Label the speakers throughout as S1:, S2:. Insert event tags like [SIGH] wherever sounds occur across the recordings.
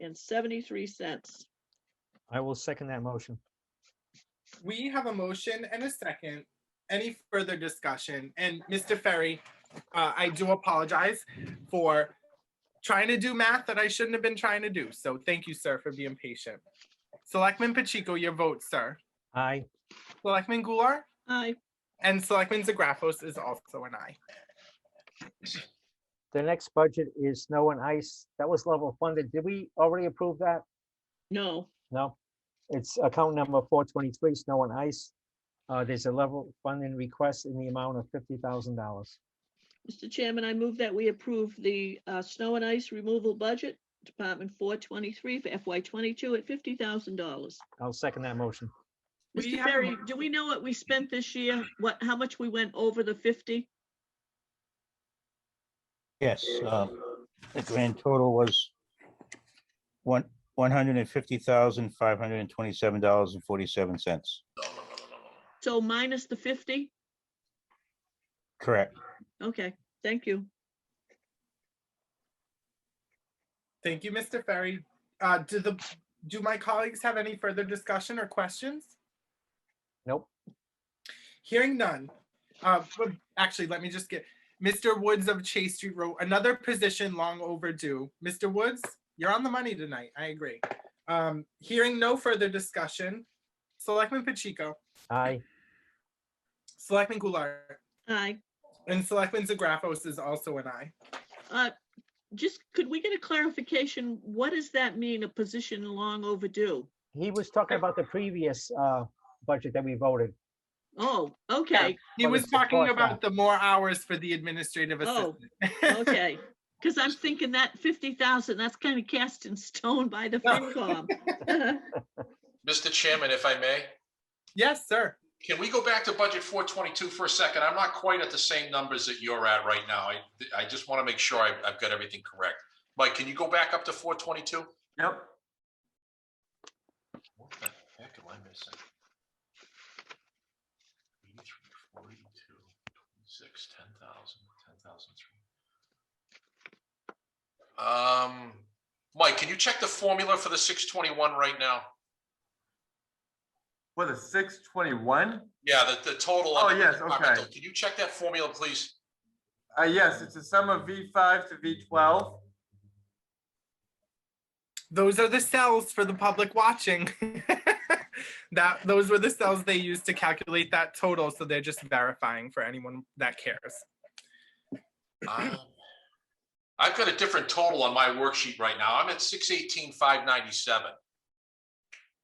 S1: and seventy-three cents.
S2: I will second that motion.
S3: We have a motion and a second. Any further discussion? And Mr. Ferry, uh, I do apologize for trying to do math that I shouldn't have been trying to do. So thank you, sir, for being patient. Selectman Pacheco, your vote, sir.
S2: Aye.
S3: Selectman Goulart
S1: Aye.
S3: and Selectman Zagrafos is also an aye.
S2: The next budget is snow and ice. That was level funded. Did we already approve that?
S1: No,
S2: No. It's account number four twenty-three, snow and ice. Uh, there's a level funding request in the amount of fifty thousand dollars.
S1: Mr. Chairman, I move that we approve the uh, snow and ice removal budget, Department four twenty-three for FY twenty-two at fifty thousand dollars.
S2: I'll second that motion.
S3: We
S1: Mr.
S3: have a
S1: Ferry,
S3: mo-
S1: do we know what we spent this year? What, how much we went over the fifty?
S4: Yes, uh, the grand total was one, one hundred and fifty thousand, five hundred and twenty-seven dollars and forty-seven cents.
S1: So minus the fifty?
S4: Correct.
S1: Okay, thank you.
S3: Thank you, Mr. Ferry. Uh, do the, do my colleagues have any further discussion or questions?
S2: Nope.
S3: Hearing none. Uh, but actually, let me just get, Mr. Woods of Chase Street Road, another position long overdue. Mr. Woods, you're on the money tonight. I agree. Um, hearing no further discussion, Selectman Pacheco,
S2: Aye.
S3: Selectman Goulart,
S1: Aye.
S3: and Selectman Zagrafos is also an aye.
S1: Uh, Just, could we get a clarification? What does that mean, a position long overdue?
S2: He was talking about the previous, uh, budget that we voted.
S1: Oh, okay,
S3: He
S2: Well,
S3: was
S2: it's the fourth
S3: talking
S2: now.
S3: about the more hours for the administrative
S1: Oh,
S3: assistant. [LAUGHS]
S1: okay. Because I'm thinking that fifty thousand, that's kind of cast in stone by the
S3: No.
S1: FinCom.
S5: Mr. Chairman, if I may,
S3: Yes, sir.
S5: can we go back to budget 422 for a second? I'm not quite at the same numbers that you're at right now. I, I just want to make sure I've, I've got everything correct. Mike, can you go back up to 422?
S6: Yep.
S5: What the heck am I missing? 83, 42, 26, 10,000, 10,003. Um, Mike, can you check the formula for the 621 right now?
S6: For the six twenty-one,
S5: Yeah, the, the total.
S6: Oh,
S5: under the
S6: yes,
S5: departmental.
S6: okay.
S5: Can you check that formula, please?
S6: uh, yes, it's a sum of V five to V twelve.
S3: Those are the cells for the public watching. [LAUGHS] That, those were the cells they used to calculate that total, so they're just verifying for anyone that cares.
S5: Um, I've got a different total on my worksheet right now. I'm at six eighteen, five ninety-seven.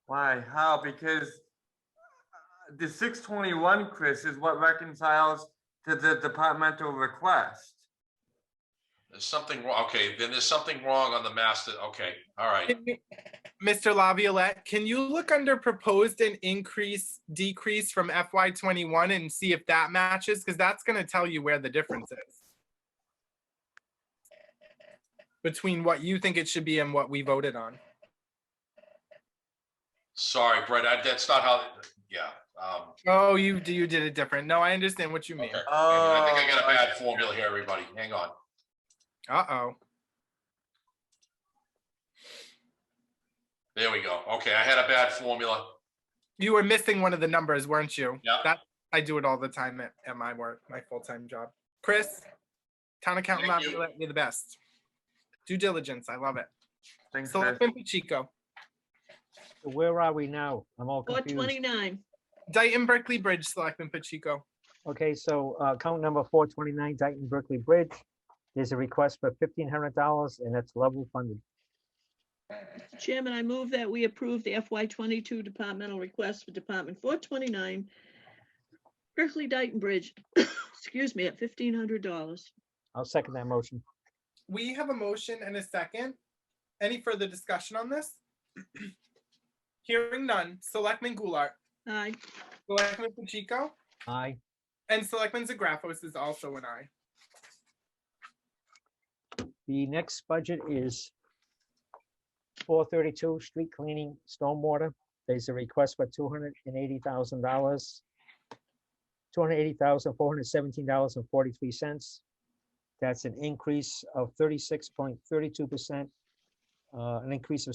S6: Why, how? Because uh, the six twenty-one, Chris, is what reconciles to the departmental request.
S5: There's something wrong. Okay, then there's something wrong on the master. Okay, all right.
S3: Can you- Mr. Laviolette, can you look under proposed and increase, decrease from FY twenty-one and see if that matches? Because that's gonna tell you where the difference is. Between what you think it should be and what we voted on.
S5: Sorry, Brett, I, that's not how, yeah. um,
S3: Oh, you, you did it different. No, I understand what you
S5: okay.
S3: mean.
S5: I think I got a
S6: Oh,
S5: bad formula here, everybody. Hang on.
S3: Uh-oh.
S5: There we go. Okay, I had a bad formula.
S3: You were missing one of the numbers, weren't you?
S5: Yeah.
S3: That, I do it all the time at, at my work, my full-time job. Chris, town accountant
S5: Thank you.
S3: Laviolette, you're the best. Due diligence, I love it.
S6: Thanks, Chris.
S3: Selectman Pacheco,
S2: So Where are we now? I'm all
S1: Four
S2: confused.
S1: twenty-nine,
S3: Dayton Berkeley Bridge, Selectman Pacheco.
S2: Okay, so, uh, account number four twenty-nine Dayton Berkeley Bridge. There's a request for fifteen hundred dollars and that's level funded.
S1: Chairman, I move that we approve the FY twenty-two departmental request for Department four twenty-nine. Berkeley Dyton Bridge, [COUGHS] excuse me, at fifteen hundred dollars.
S2: I'll second that motion.
S3: We have a motion and a second. Any further discussion on this? [CLEARS THROAT] Hearing none, Selectman Goulart,
S1: Aye.
S3: Selectman Pacheco,
S2: Aye.
S3: and Selectman Zagrafos is also an aye.
S2: The next budget is four thirty-two, street cleaning, stormwater. There's a request for two hundred and eighty thousand dollars. Two hundred eighty thousand, four hundred seventeen dollars and forty-three cents. That's an increase of thirty-six point thirty-two percent uh, an increase of